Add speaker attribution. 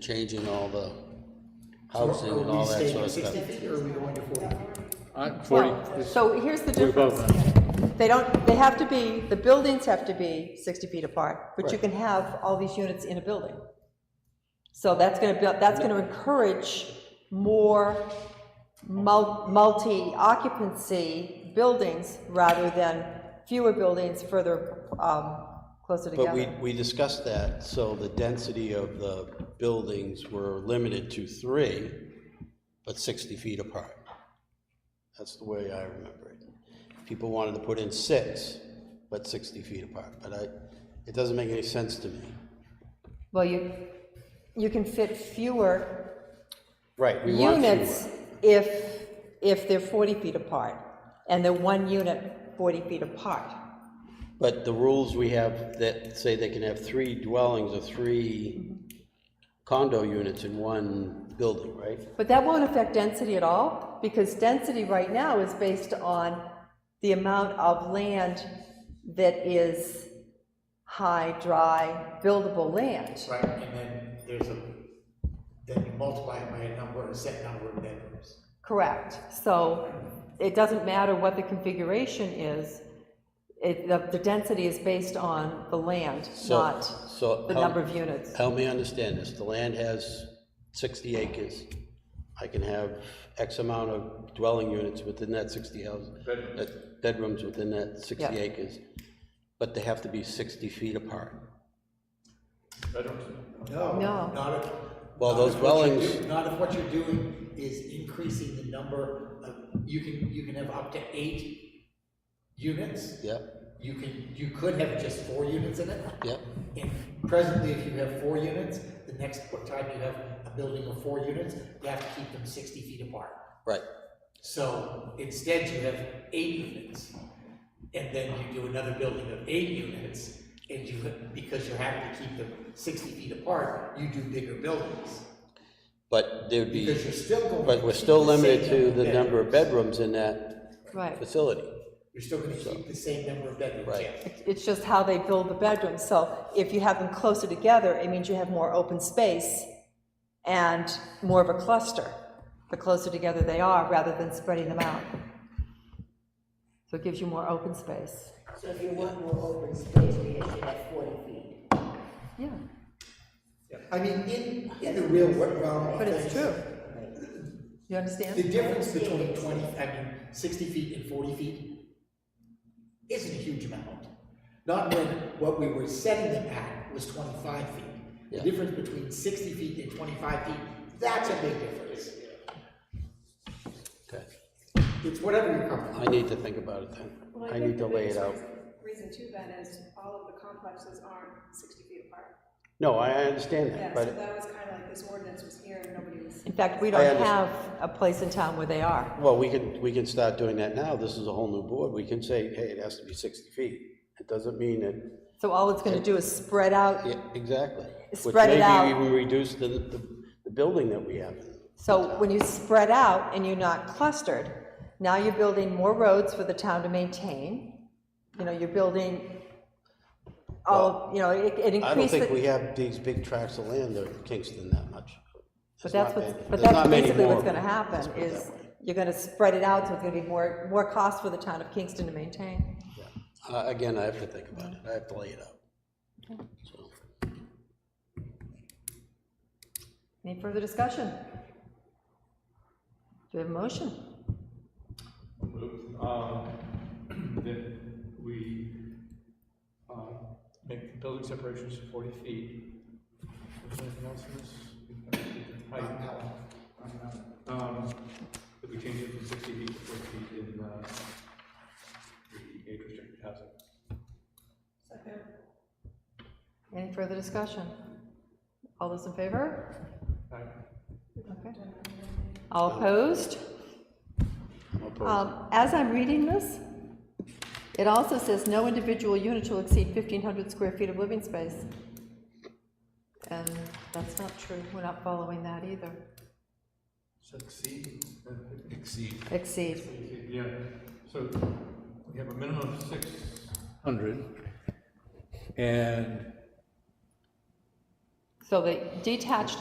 Speaker 1: changing all the
Speaker 2: Are
Speaker 1: housing and
Speaker 2: we
Speaker 1: all that
Speaker 2: staying
Speaker 1: sort
Speaker 2: at
Speaker 1: of stuff.
Speaker 2: sixty feet or are we going to forty feet?
Speaker 3: Uh, Forty,
Speaker 4: So here's the
Speaker 3: we're
Speaker 4: difference.
Speaker 3: both,
Speaker 4: They don't, they have to be, the buildings have to be 60 feet apart, but you can have all these units in a building. So that's going to, that's going to encourage more mul- multi-occupancy buildings rather than fewer buildings further, um, closer
Speaker 1: But we,
Speaker 4: together.
Speaker 1: we discussed that, so the density of the buildings were limited to three, but sixty feet apart. That's the way I remember it. People wanted to put in six, but sixty feet apart, but I, it doesn't make any sense to me.
Speaker 4: Well, you, you can fit fewer
Speaker 1: Right, we want
Speaker 4: units
Speaker 1: fewer.
Speaker 4: if, if they're 40 feet apart, and they're one unit 40 feet apart.
Speaker 1: But the rules we have that say they can have three dwellings or three condo units in one building, right?
Speaker 4: But that won't affect density at all, because density right now is based on the amount of land that is high, dry, buildable land.
Speaker 2: Right, and then there's a, then you multiply it by a number, a set number of bedrooms.
Speaker 4: Correct. So it doesn't matter what the configuration is, it, the, the density is based on the land,
Speaker 1: So-
Speaker 4: not
Speaker 1: so
Speaker 4: the
Speaker 1: how-
Speaker 4: number of units.
Speaker 1: Help me understand this, the land has sixty acres, I can have X amount of dwelling units within that sixty houses. Bedrooms. Bedrooms within that sixty
Speaker 4: Yeah.
Speaker 1: acres, but they have to be sixty feet apart.
Speaker 2: No.
Speaker 4: No.
Speaker 2: Not if.
Speaker 1: Well,
Speaker 2: not
Speaker 1: those
Speaker 2: if what you're
Speaker 1: dwellings-
Speaker 2: do- Not if what you're doing is increasing the number of, you can, you can have up to eight units.
Speaker 1: Yep,
Speaker 2: You can, you could have just four units in it.
Speaker 1: yep,
Speaker 2: And presently, if you have four units, the next time you have a building of four units, you have to keep them sixty feet apart.
Speaker 1: right,
Speaker 2: So instead, you have eight units, and then you do another building of eight units, and you, because you're having to keep them sixty feet apart, you do bigger buildings,
Speaker 1: but there'd be,
Speaker 2: because you're still going.
Speaker 1: but we're
Speaker 2: to
Speaker 1: still
Speaker 2: keep the same
Speaker 1: limited to
Speaker 2: number
Speaker 1: the number of
Speaker 2: bedrooms.
Speaker 1: bedrooms in that
Speaker 4: Right.
Speaker 1: facility.
Speaker 2: You're still gonna keep the same number of bedrooms,
Speaker 1: Right.
Speaker 2: yes.
Speaker 4: It's just how they build the bedrooms. So if you have them closer together, it means you have more open space and more of a cluster, the closer together they are, rather than spreading them out. So it gives you more open space.
Speaker 5: So if you want more open space, we should have forty feet.
Speaker 4: Yeah,
Speaker 2: I mean, in, in the real wor- realm of
Speaker 4: but
Speaker 2: things,
Speaker 4: it's true. You
Speaker 2: The
Speaker 4: understand?
Speaker 2: difference between twenty, I mean, sixty feet and forty feet isn't a huge amount. Not when what we were setting them at was twenty-five feet. The
Speaker 1: Yeah.
Speaker 2: difference between sixty feet and twenty-five feet, that's a big difference.
Speaker 1: Okay,
Speaker 2: It's whatever you're comfortable
Speaker 1: I need to think about it then,
Speaker 6: Well,
Speaker 1: I
Speaker 6: think
Speaker 1: need to
Speaker 6: the
Speaker 1: lay it
Speaker 6: biggest
Speaker 1: out.
Speaker 6: reason- Reason too then is all of the complexes aren't sixty feet apart.
Speaker 1: No, I I understand that,
Speaker 6: Yeah, so
Speaker 1: but,
Speaker 6: that was kind of like this ordinance was here and nobody was.
Speaker 4: In fact, we
Speaker 1: I
Speaker 4: don't
Speaker 1: understand.
Speaker 4: have a place in town where they are.
Speaker 1: well, we can, we can start doing that now, this is a whole new board, we can say, hey, it has to be sixty feet. It doesn't mean that
Speaker 4: So all it's gonna do is spread out.
Speaker 1: Yeah, exactly.
Speaker 4: Spread it out.
Speaker 1: Which maybe even reduce the, the, the building that we have.
Speaker 4: So when you spread out and you're not clustered, now you're building more roads for the town to maintain. You know, you're building all, you know, it it
Speaker 1: I don't
Speaker 4: increases.
Speaker 1: think we have these big tracts of land there in Kingston that much. There's
Speaker 4: But that's
Speaker 1: not
Speaker 4: what's,
Speaker 1: many-
Speaker 4: but
Speaker 1: there's
Speaker 4: that's
Speaker 1: not many
Speaker 4: basically what's
Speaker 1: more.
Speaker 4: gonna happen,
Speaker 1: Let's put it
Speaker 4: is
Speaker 1: that way.
Speaker 4: you're gonna spread it out, so it's gonna be more, more cost for the town of Kingston to maintain.
Speaker 1: Uh, again, I have to think about it, I have to lay it out. So,
Speaker 4: Any further discussion? Do we have a motion?
Speaker 7: Um, that we, um, make the building separations forty feet. Is there anything else in this? Height. Um, that we change it from sixty feet to forty feet in, uh, the age restricted housing.
Speaker 4: Any further discussion? All those in favor?
Speaker 7: Right.
Speaker 4: Okay. All opposed? Um, As I'm reading this, it also says no individual unit shall exceed 1,500 square feet of living space. And that's not true, we're not following that either.
Speaker 7: Succeed. uh, Exceed.
Speaker 4: Exceed,
Speaker 7: Yeah, so we have a minimum of six hundred. And
Speaker 4: so the detached